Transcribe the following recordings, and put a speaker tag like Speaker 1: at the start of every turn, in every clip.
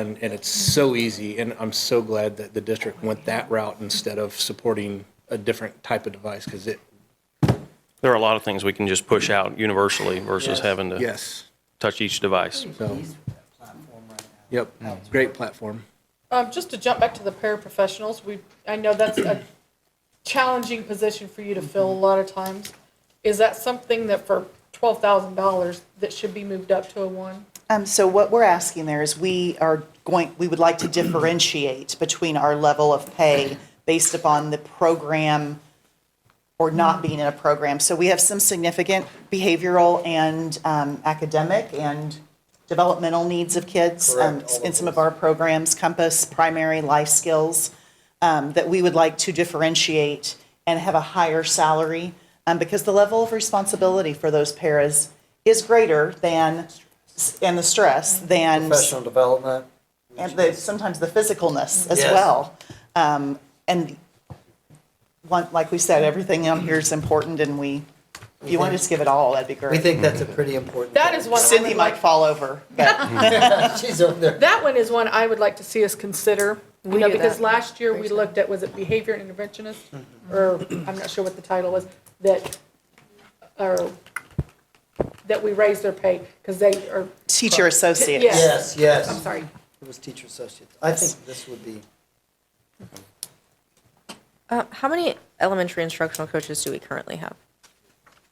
Speaker 1: And, and it's so easy, and I'm so glad that the district went that route instead of supporting a different type of device, because it,
Speaker 2: There are a lot of things we can just push out universally versus having to
Speaker 1: yes,
Speaker 2: touch each device.
Speaker 1: so, yep, great platform.
Speaker 3: Um, just to jump back to the paraprofessionals, we, I know that's a challenging position for you to fill a lot of times. Is that something that for twelve thousand dollars that should be moved up to a one?
Speaker 4: Um, so what we're asking there is we are going, we would like to differentiate between our level of pay based upon the program or not being in a program. So we have some significant behavioral and um, academic and developmental needs of kids um, in some of our programs, Compass, primary life skills, um, that we would like to differentiate and have a higher salary um, because the level of responsibility for those paras is greater than, and the stress than
Speaker 5: Professional development.
Speaker 4: and the, sometimes the physicalness as
Speaker 5: Yes.
Speaker 4: well. Um, and one, like we said, everything on here is important, and we, if you want to just give it all, that'd be great.
Speaker 5: We think that's a pretty important.
Speaker 3: That is one I
Speaker 4: Cindy
Speaker 3: would
Speaker 4: might
Speaker 3: like.
Speaker 4: fall over, but
Speaker 5: She's over there.
Speaker 3: That one is one I would like to see us consider. You know,
Speaker 6: do
Speaker 3: because
Speaker 6: that.
Speaker 3: last year we looked at, was it behavior interventionist? Or, I'm not sure what the title was, that, or, that we raised their pay because they are,
Speaker 4: teacher associates.
Speaker 3: Yes.
Speaker 5: Yes,
Speaker 3: I'm
Speaker 5: yes.
Speaker 3: sorry,
Speaker 5: It was teacher associates. I think this would be,
Speaker 6: Uh, how many elementary instructional coaches do we currently have?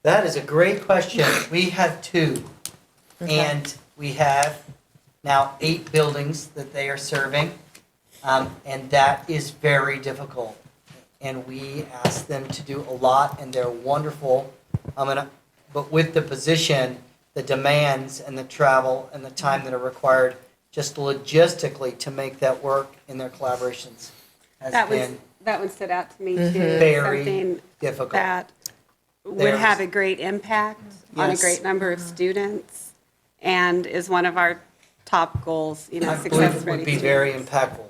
Speaker 5: that is a great question. We have two. And we have now eight buildings that they are serving. Um, and that is very difficult. And we ask them to do a lot and they're wonderful. I'm gonna, but with the position, the demands and the travel and the time that are required, just logistically to make that work in their collaborations has
Speaker 7: That was,
Speaker 5: been
Speaker 7: that one stood out to me too.
Speaker 5: Mhm. Very
Speaker 7: Something
Speaker 5: difficult.
Speaker 7: that would
Speaker 5: There's-
Speaker 7: have a great impact on a
Speaker 5: Yes.
Speaker 7: great number of students and is one of our top goals, you know,
Speaker 5: I believe
Speaker 7: success
Speaker 5: it
Speaker 7: for any
Speaker 5: would be
Speaker 7: student.
Speaker 5: very impactful.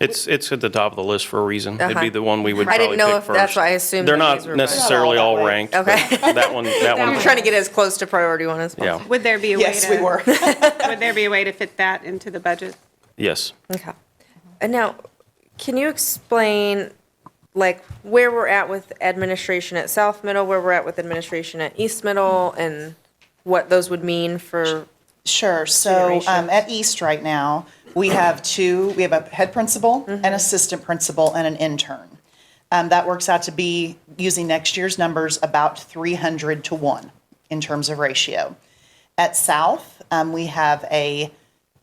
Speaker 2: It's, it's at the top of the list for a reason. It'd be
Speaker 6: Uh-huh.
Speaker 2: the one we would
Speaker 6: I
Speaker 2: probably
Speaker 6: didn't
Speaker 2: pick first.
Speaker 6: know if that's why I assumed
Speaker 2: They're
Speaker 6: that
Speaker 2: not
Speaker 6: these were- Not all
Speaker 2: necessarily
Speaker 4: that
Speaker 2: all
Speaker 4: way.
Speaker 2: ranked. but
Speaker 6: Okay.
Speaker 2: That one, that
Speaker 7: That
Speaker 2: one.
Speaker 6: We're trying to get as close to priority one as
Speaker 2: Yeah,
Speaker 6: possible.
Speaker 7: Would there be a way to?
Speaker 4: Yes, we were.
Speaker 7: Would there be a way to fit that into the budget?
Speaker 2: yes.
Speaker 6: Okay. And now, can you explain, like, where we're at with administration at South Middle, where we're at with administration at East Middle, and what those would mean for,
Speaker 4: Sure. So um, at East right now, we have two, we have a head principal, an assistant principal, and an intern. Um, that works out to be, using next year's numbers, about 300 to 1 in terms of ratio. At South, um, we have a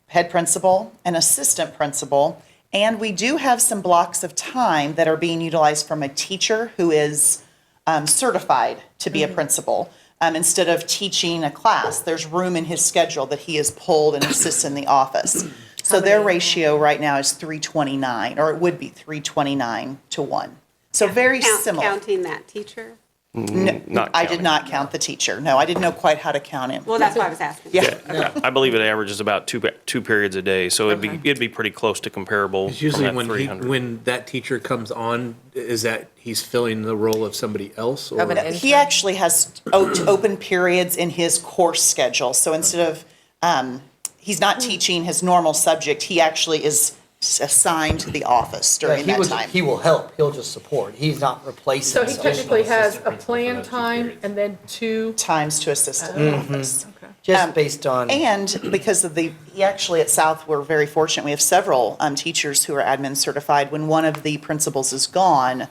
Speaker 4: head principal, an assistant principal, and we do have some blocks of time that are being utilized from a teacher who is um, certified to
Speaker 7: Mm-hmm.
Speaker 4: be a principal. Um, instead of teaching a class, there's room in his schedule that he is pulled and assists in the office. So their ratio right now is 329, or it would be 329 to 1. So very
Speaker 7: Count-
Speaker 4: similar.
Speaker 7: Counting that teacher?
Speaker 2: Not
Speaker 4: I did
Speaker 2: counting.
Speaker 4: not count the teacher. No, I didn't know quite how to count him.
Speaker 7: Well, that's why I was asking.
Speaker 4: Yeah.
Speaker 2: Yeah, I believe it averages about two, pe- two periods a day, so it'd be, it'd be pretty close to comparable
Speaker 1: It's
Speaker 2: from
Speaker 1: usually
Speaker 2: that
Speaker 1: when he,
Speaker 2: 300.
Speaker 1: when that teacher comes on, is that he's filling the role of somebody else or?
Speaker 6: Of an
Speaker 4: He actually has o- open periods in his course schedule. So instead of, um, he's not teaching his normal subject, he actually is s- assigned to the office
Speaker 5: Yeah,
Speaker 4: during
Speaker 5: he
Speaker 4: that
Speaker 5: was,
Speaker 4: time.
Speaker 5: he will help, he'll just support, he's not replacing.
Speaker 3: so he
Speaker 5: someone.
Speaker 3: technically has a planned time and then two
Speaker 4: Times to assist in the
Speaker 5: Mm-hmm.
Speaker 4: office.
Speaker 5: Just based
Speaker 4: Um,
Speaker 5: on,
Speaker 4: And because of the, he actually at South, we're very fortunate, we have several um, teachers who are admin certified. When one of the principals is gone,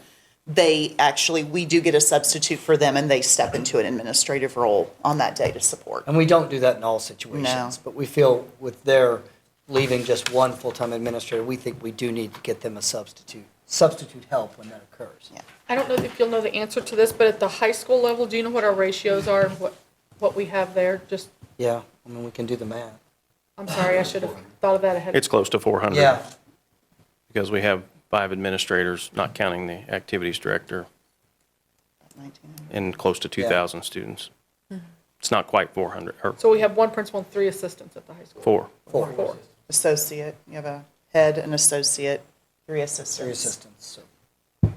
Speaker 4: they actually, we do get a substitute for them and they step into an administrative role on that day to support.
Speaker 5: and we don't do that in all
Speaker 4: No.
Speaker 5: situations, but we feel with their leaving just one full-time administrator, we think we do need to get them a substitute, substitute help when that occurs.
Speaker 4: Yeah.
Speaker 3: I don't know if you'll know the answer to this, but at the high school level, do you know what our ratios are, and what, what we have there? Just,
Speaker 5: Yeah, I mean, we can do the math.
Speaker 3: I'm sorry, I should have thought of that ahead.
Speaker 2: It's close to 400.
Speaker 5: Yeah,
Speaker 2: Because we have five administrators, not counting the activities director, and close to 2,000 students. It's not quite 400, or
Speaker 3: So we have one principal and three assistants at the high school.
Speaker 2: four.
Speaker 5: four,
Speaker 4: Associate, you have a head, an associate, three assistants.
Speaker 5: three assistants, so.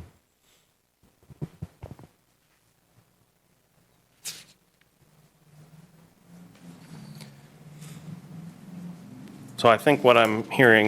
Speaker 2: So I think what I'm hearing